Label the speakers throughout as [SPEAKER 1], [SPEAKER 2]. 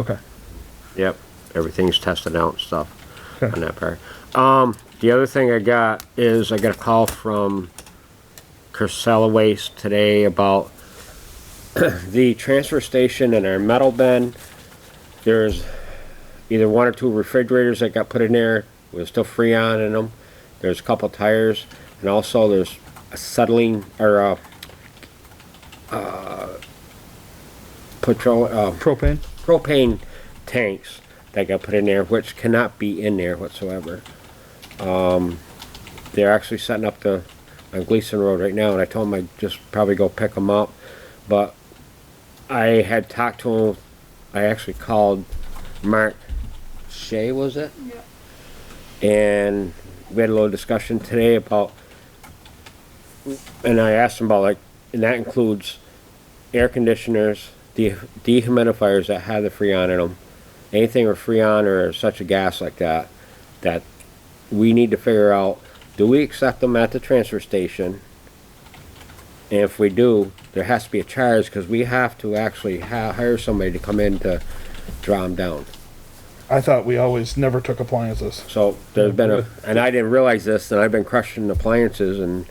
[SPEAKER 1] Okay.
[SPEAKER 2] Yep, everything's tested out and stuff
[SPEAKER 1] Okay.
[SPEAKER 2] on that part. Um, the other thing I got is I got a call from Casella Waste today about the transfer station and our metal bin. There's either one or two refrigerators that got put in there with still freon in them. There's a couple tires, and also there's a settling or a, uh, patrol, uh,
[SPEAKER 1] Propane?
[SPEAKER 2] propane tanks that got put in there, which cannot be in there whatsoever. Um, they're actually setting up the, on Gleason Road right now, and I told them I'd just probably go pick them up. But I had talked to him, I actually called Mark Shea, was it? And we had a little discussion today about, and I asked him about like, and that includes air conditioners, de- dehumidifiers that have the freon in them, anything with freon or such a gas like that, that we need to figure out, do we accept them at the transfer station? And if we do, there has to be a charge, because we have to actually ha- hire somebody to come in to draw them down.
[SPEAKER 1] I thought we always never took appliances.
[SPEAKER 2] So there's been a, and I didn't realize this, and I've been crushing appliances and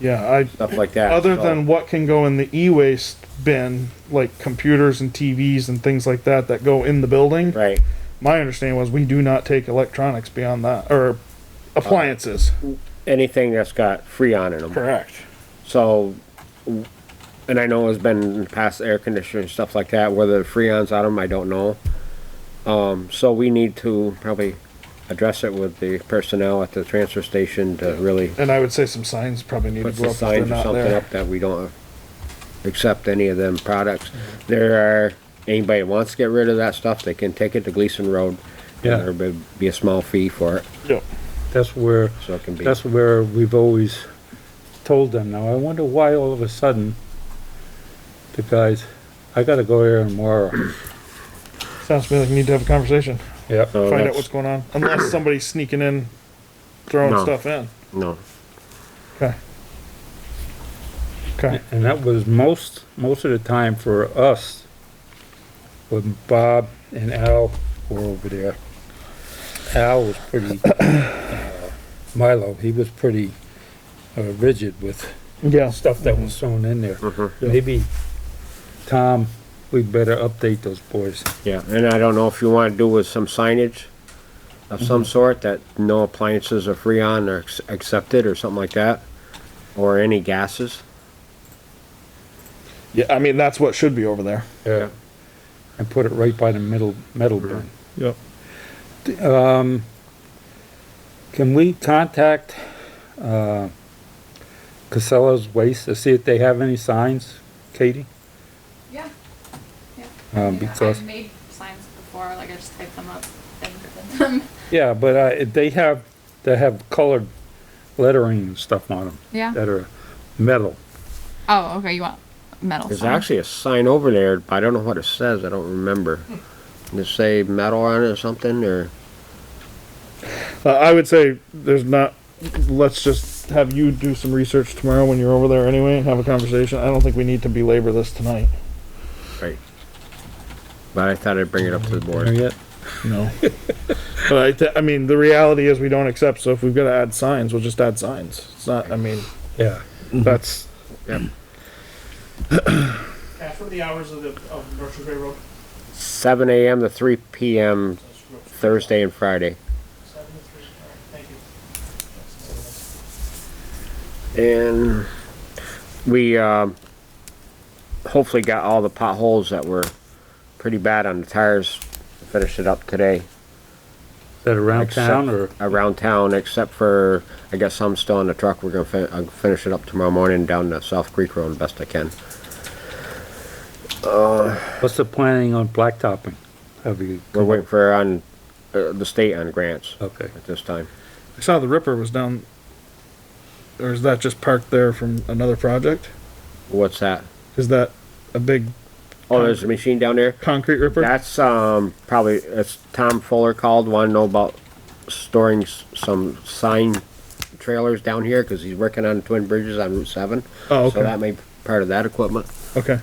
[SPEAKER 1] Yeah, I,
[SPEAKER 2] stuff like that.
[SPEAKER 1] other
[SPEAKER 2] so-
[SPEAKER 1] than what can go in the e-waste bin, like computers and TVs and things like that that go in the building.
[SPEAKER 2] Right.
[SPEAKER 1] My understanding was we do not take electronics beyond that, or appliances.
[SPEAKER 2] Anything that's got freon in them.
[SPEAKER 1] Correct.
[SPEAKER 2] So, and I know it's been in the past air conditioner and stuff like that, whether the freon's on them, I don't know. Um, so we need to probably address it with the personnel at the transfer station to really
[SPEAKER 1] And I would say some signs probably need to
[SPEAKER 2] put
[SPEAKER 1] go up
[SPEAKER 2] some
[SPEAKER 1] if they're
[SPEAKER 2] signs or
[SPEAKER 1] not
[SPEAKER 2] something
[SPEAKER 1] there.
[SPEAKER 2] up that we don't accept any of them products. There are, anybody that wants to get rid of that stuff, they can take it to Gleason Road.
[SPEAKER 3] Yeah.
[SPEAKER 2] and There'll be- be a small fee for it,
[SPEAKER 1] Yep.
[SPEAKER 3] That's where,
[SPEAKER 2] so it can be.
[SPEAKER 3] that's where we've always told them now. I wonder why all of a sudden the guys, I gotta go here tomorrow.
[SPEAKER 1] Sounds to me like you need to have a conversation,
[SPEAKER 3] Yep.
[SPEAKER 2] So
[SPEAKER 1] find out
[SPEAKER 2] that's-
[SPEAKER 1] what's going on, unless somebody's sneaking in, throwing
[SPEAKER 2] No.
[SPEAKER 1] stuff in.
[SPEAKER 2] No,
[SPEAKER 1] Okay. Okay.
[SPEAKER 3] And that was most, most of the time for us, when Bob and Al were over there. Al was pretty, uh, Milo, he was pretty uh, rigid with
[SPEAKER 1] Yeah.
[SPEAKER 3] stuff that was thrown in there.
[SPEAKER 2] uh-huh.
[SPEAKER 3] Maybe, Tom, we better update those boys.
[SPEAKER 2] Yeah, and I don't know if you want to do with some signage of some sort that no appliances are free on or ex- accepted or something like that, or any gases.
[SPEAKER 1] Yeah, I mean, that's what should be over there.
[SPEAKER 3] Yeah. And put it right by the middle, metal bin.
[SPEAKER 1] Yep.
[SPEAKER 3] Can we contact, uh, Casella's Waste to see if they have any signs, Katie?
[SPEAKER 4] Yeah. yeah.
[SPEAKER 3] Um,
[SPEAKER 4] Yeah,
[SPEAKER 3] because,
[SPEAKER 4] I've made signs before, like I just type them up and print them.
[SPEAKER 3] yeah, but, uh, if they have, they have colored lettering and stuff on them
[SPEAKER 4] Yeah.
[SPEAKER 3] that are metal.
[SPEAKER 4] Oh, okay. You want metal?
[SPEAKER 2] There's
[SPEAKER 4] sign.
[SPEAKER 2] actually a sign over there, but I don't know what it says, I don't remember. Does it say metal on it or something, or?
[SPEAKER 1] Uh, I would say there's not. Let's just have you do some research tomorrow when you're over there anyway and have a conversation. I don't think we need to belabor this tonight.
[SPEAKER 2] Right. But I thought I'd bring it up to the
[SPEAKER 3] There
[SPEAKER 2] board.
[SPEAKER 3] yet?
[SPEAKER 1] No. but I, th- I mean, the reality is we don't accept. So if we've got to add signs, we'll just add signs. It's not. I mean,
[SPEAKER 3] Yeah.
[SPEAKER 1] that's.
[SPEAKER 5] That's what the hours of the, of Berkshire Bay Road,
[SPEAKER 2] Seven AM to three PM,
[SPEAKER 5] so screw up,
[SPEAKER 2] Thursday and Friday.
[SPEAKER 5] seven to three, all right, thank you.
[SPEAKER 2] And we, um, hopefully got all the potholes that were pretty bad on the tires, finished it up today.
[SPEAKER 3] Is that around
[SPEAKER 2] Except-
[SPEAKER 3] town or?
[SPEAKER 2] Around town, except for, I guess I'm still in the truck, we're gonna fin- I'll finish it up tomorrow morning down the South Creek Road best I can.
[SPEAKER 3] What's the planning on blacktopping? Have you?
[SPEAKER 2] We're waiting for on, uh, the state on grants
[SPEAKER 3] Okay.
[SPEAKER 2] at this time.
[SPEAKER 1] I saw the Ripper was down. Or is that just parked there from another project?
[SPEAKER 2] What's that?
[SPEAKER 1] Is that a big
[SPEAKER 2] Oh, there's a machine down there?
[SPEAKER 1] concrete ripper?
[SPEAKER 2] That's, um, probably, it's Tom Fuller called, wanna know about storing s- some sign trailers down here, cause he's working on Twin Bridges on Route seven.
[SPEAKER 1] oh,
[SPEAKER 2] So
[SPEAKER 1] okay.
[SPEAKER 2] that may be part of that equipment.
[SPEAKER 1] okay.